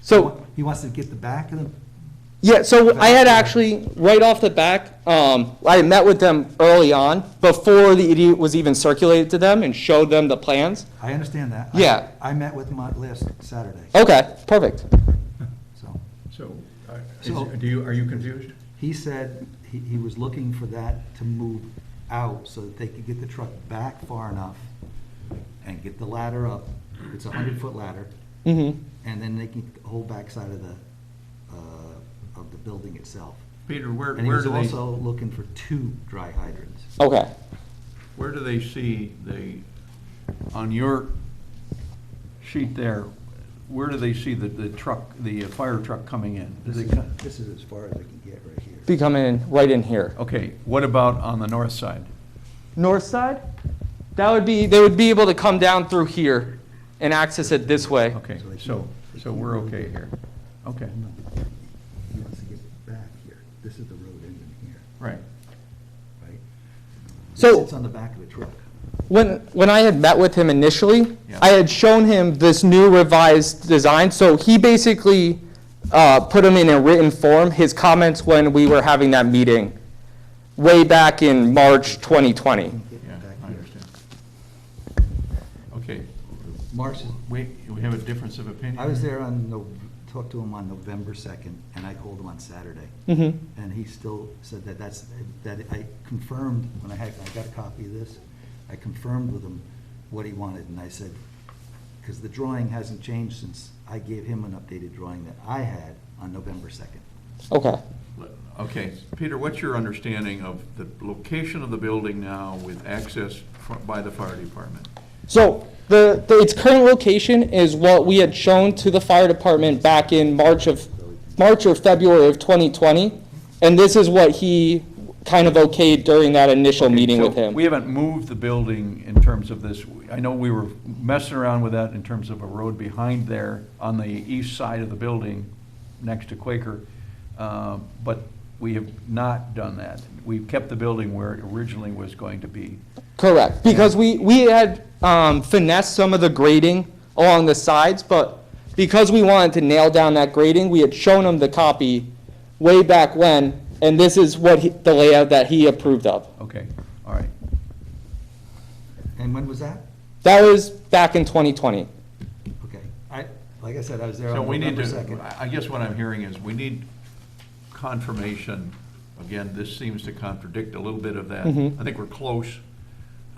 So, He wants to get the back of the, yeah, so I had actually, right off the back, um, I had met with them early on, before the idiot was even circulated to them, and showed them the plans. I understand that. I- Yeah. Oh. I met with him on last Saturday, Okay, perfect. so. So, uh, So- is- do you, are you confused? He said he, he was looking for that to move out so that they could get the truck back far enough and get the ladder up. It's a hundred-foot ladder, Mm-hmm. and then they can get the whole backside of the, uh, of the building itself. Peter, where, And he where was do also they, looking for two dry hydrants. Okay. where do they see the, on your sheet there, where do they see the, the truck, the uh, fire truck coming in? Do This they is, co- this is as far as I can get right here. Be coming in right in here. Okay, what about on the north side? North side? That would be, they would be able to come down through here and access it this way. Okay, So they so, keep- so we're okay here. Okay, No, He wants to get back here. This is the road ending here, right. right? So- It's on the back of the truck. When, when I had met with him initially, Yeah. I had shown him this new revised design, so he basically uh, put them in a written form, his comments when we were having that meeting way back in March 2020. Get Yeah, back I here. understand. Okay, Marsh is we, we have a difference of opinion? I was there on, Nov- talked to him on November 2nd, and I called him on Saturday. Mhm. Mm-hmm. And he still said that that's, that I confirmed, when I had, I got a copy of this, I confirmed with him what he wanted, and I said, because the drawing hasn't changed since I gave him an updated drawing that I had on November 2nd. Okay. Okay, Peter, what's your understanding of the location of the building now with access fr- by the fire department? So the, the, its current location is what we had shown to the fire department back in March of, March or February of 2020, and this is what he kind of okayed during that initial meeting So with him. We haven't moved the building in terms of this, I know we were messing around with that in terms of a road behind there on the east side of the building, next to Quaker, uh, but we have not done that. We've kept the building where it originally was going to be. Correct, because we, we had um, finessed some of the grading along the sides, but because we wanted to nail down that grading, we had shown him the copy way back when, and this is what he- the layout that he approved of. Okay, all right. And when was that? That was back in 2020. Okay. I, like I said, I was there So on we need November to, 2nd. I- I guess what I'm hearing is we need confirmation. Again, this seems to contradict a little bit of that. Mm-hmm. Mhm. I think we're close,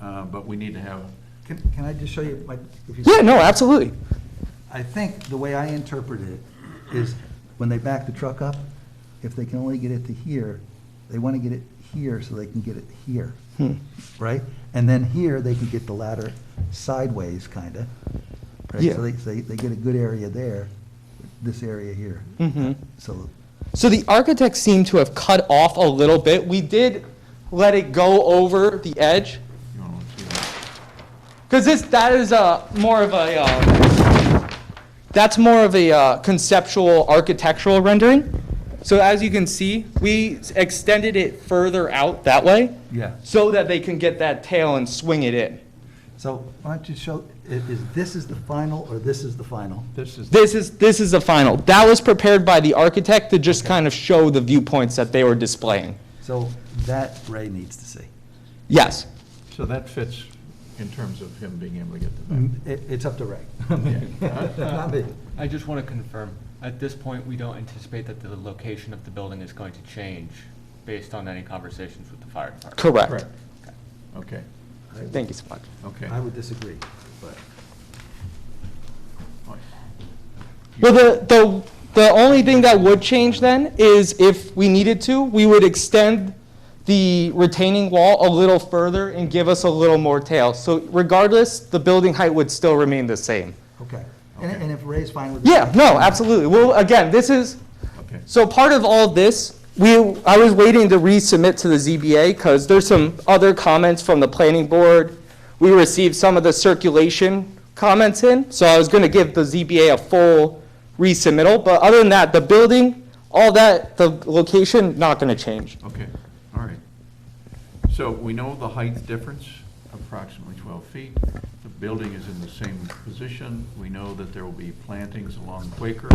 uh, but we need to have, Can, can I just show you, my if you. Yeah, no, absolutely. I think the way I interpret it is when they back the truck up, if they can only get it to here, they want to get it here so they can get it here, Hmm. right? And then here, they can get the ladder sideways, kind of. Yeah. So they, they, they get a good area there, this area here. Mhm. So, So the architects seem to have cut off a little bit. We did let it go over the edge, you know, let's see that. because this, that is a, more of a, uh, that's more of a uh, conceptual architectural rendering. So as you can see, we s- extended it further out that way. Yeah. So that they can get that tail and swing it in. so why don't you show, i- is this is the final or this is the final? this is, This is, this is the final. That was prepared by the architect to just kind of show the viewpoints that they were displaying. So that Ray needs to see. Yes. so that fits in terms of him being able to get the back. It, it's up to Ray. Not me. Yeah. I just want to confirm, at this point, we don't anticipate that the location of the building is going to change based on any conversations with the fire department? Correct. Mm-hmm. Okay, Thank you so much. okay. I would disagree, but. All right. Well, the, the, the only thing that would change then is if we needed to, we would extend the retaining wall a little further and give us a little more tail. So regardless, the building height would still remain the same. Okay, and, Okay. and if Ray's fine with it? Yeah, no, absolutely. Well, again, this is, Okay, so part of all this, we, I was waiting to resubmit to the ZBA because there's some other comments from the planning board. We received some of the circulation comments in, so I was going to give the ZBA a full resubmittal. But other than that, the building, all that, the location, not going to change. okay, all right. So we know the height difference, approximately 12 feet. The building is in the same position. We know that there will be plantings along Quaker.